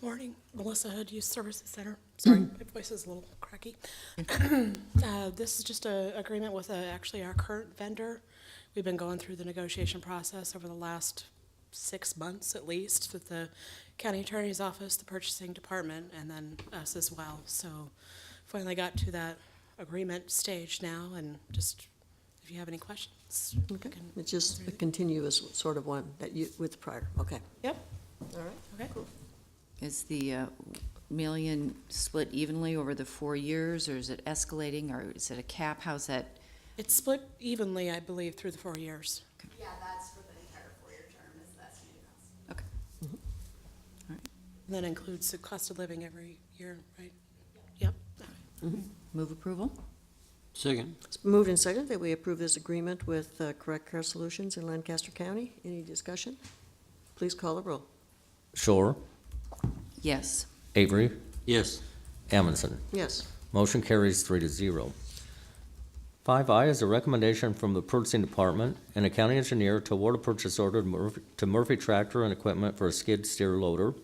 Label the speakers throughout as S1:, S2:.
S1: morning, Melissa Hood, Youth Services Center. Sorry, my voice is a little cracky. Uh, This is just a agreement with uh, actually our current vendor. We've been going through the negotiation process over the last six months at least with the county attorney's office, the purchasing department, and then us as well. So finally got to that agreement stage now, and just if you have any questions. we
S2: Okay,
S1: can-
S2: it's just a continuous sort of one that you, with prior, okay,
S1: Yep,
S2: all right.
S1: okay.
S3: Is the uh, million split evenly over the four years, or is it escalating, or is it a cap? How's that?
S1: It's split evenly, I believe, through the four years.
S4: Yeah, that's for the entire four-year term, is the estimated cost.
S3: Okay.
S1: And that includes the cost of living every year, right? Yep.
S3: Move approval?
S5: Second.
S2: It's moved and seconded that we approve this agreement with uh, Correct Care Solutions in Lancaster County. Any discussion? Please call the roll.
S6: Shore,
S3: Yes.
S6: Avery,
S5: Yes.
S6: Amundson.
S2: Yes,
S6: Motion carries three to zero. Five I is a recommendation from the purchasing department and a county engineer to award a purchase order to Murphy- to Murphy Tractor and Equipment for a skid steer loader.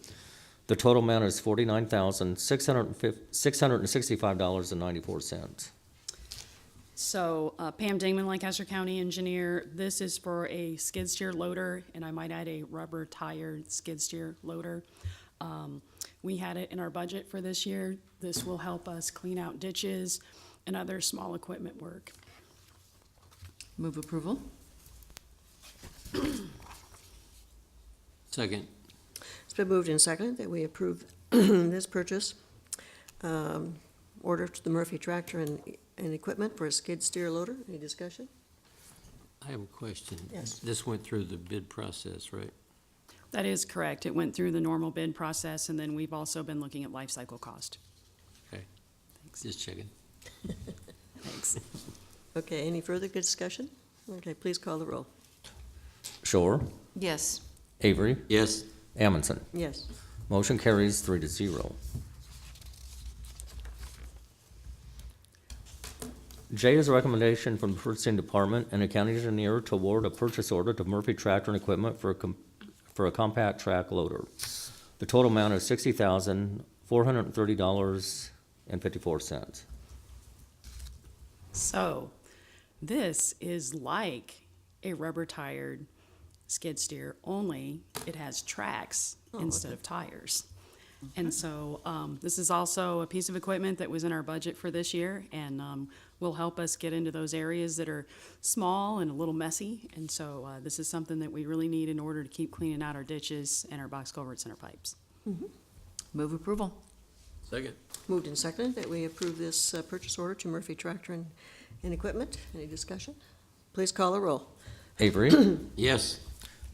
S6: The total amount is forty-nine thousand, six hundred and fif- six hundred and sixty-five dollars and ninety-four cents.
S7: So uh, Pam Dingman, Lancaster County Engineer, this is for a skid steer loader, and I might add a rubber tired skid steer loader. Um, We had it in our budget for this year. This will help us clean out ditches and other small equipment work.
S3: Move approval?
S5: Second.
S2: it's been moved and seconded that we approve this purchase um, order to the Murphy Tractor and, and Equipment for a skid steer loader. Any discussion?
S5: I have a question.
S2: Yes.
S5: This went through the bid process, right?
S7: That is correct. It went through the normal bid process, and then we've also been looking at life cycle cost.
S5: Okay. Just checking.
S7: Thanks.
S2: Okay, any further discussion? Okay, please call the roll.
S6: Shore,
S3: Yes.
S6: Avery,
S5: Yes.
S6: Amundson.
S2: Yes,
S6: Motion carries three to zero. J is a recommendation from the purchasing department and the county engineer to award a purchase order to Murphy Tractor and Equipment for a, com- for a compact track loader. The total amount is sixty thousand, four hundred and thirty dollars and fifty-four cents.
S7: So, this is like a rubber tired skid steer, only it has tracks instead of tires. And so, um, this is also a piece of equipment that was in our budget for this year and um, will help us get into those areas that are small and a little messy. And so, uh, this is something that we really need in order to keep cleaning out our ditches and our box culverts and our pipes.
S3: Move approval?
S5: Second.
S2: moved and seconded that we approve this uh, purchase order to Murphy Tractor and, and Equipment. Any discussion? Please call the roll.
S6: Avery,
S5: Yes.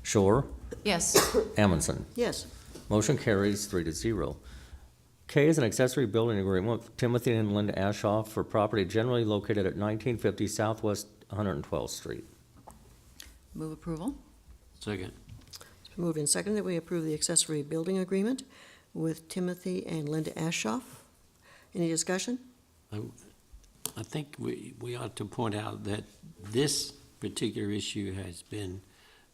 S6: Shore,
S3: Yes.
S6: Amundson.
S2: Yes,
S6: Motion carries three to zero. K is an accessory building agreement with Timothy and Linda Ashoff for property generally located at nineteen fifty Southwest one hundred and twelfth Street.
S3: Move approval?
S5: Second.
S2: Moved and seconded that we approve the accessory building agreement with Timothy and Linda Ashoff. Any discussion?
S5: I think we, we ought to point out that this particular issue has been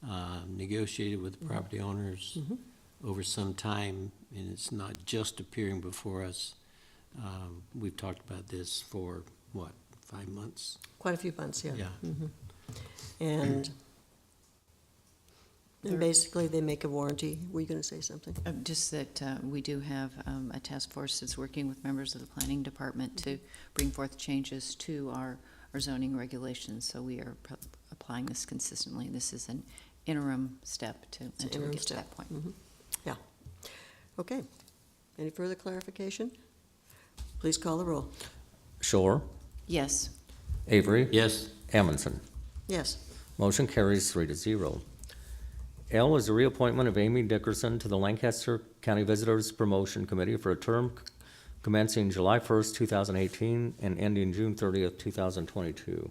S5: uh, negotiated with the property owners over some time, and it's not just appearing before us. Um, We've talked about this for, what, five months?
S2: Quite a few months, yeah. Mm-hmm.
S5: Yeah.
S2: And, and basically, they make a warranty. Were you gonna say something?
S3: Uh, Just that uh, we do have um, a task force that's working with members of the planning department to bring forth changes to our our zoning regulations, so we are pro- applying this consistently. This is an interim step to,
S2: an
S3: until we
S2: interim
S3: get to
S2: step.
S3: that point.
S2: Okay. Any further clarification? Please call the roll.
S6: Shore,
S3: Yes.
S6: Avery,
S5: Yes.
S6: Amundson.
S2: Yes,
S6: Motion carries three to zero. L is the reappointment of Amy Dickerson to the Lancaster County Visitors Promotion Committee for a term commencing July first, two thousand eighteen, and ending June thirtieth, two thousand twenty-two.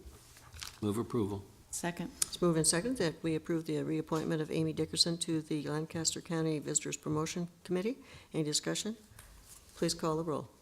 S5: Move approval.
S3: Second?
S2: it's moved and seconded that we approve the reappointment of Amy Dickerson to the Lancaster County Visitors Promotion Committee. Any discussion? Please call the roll.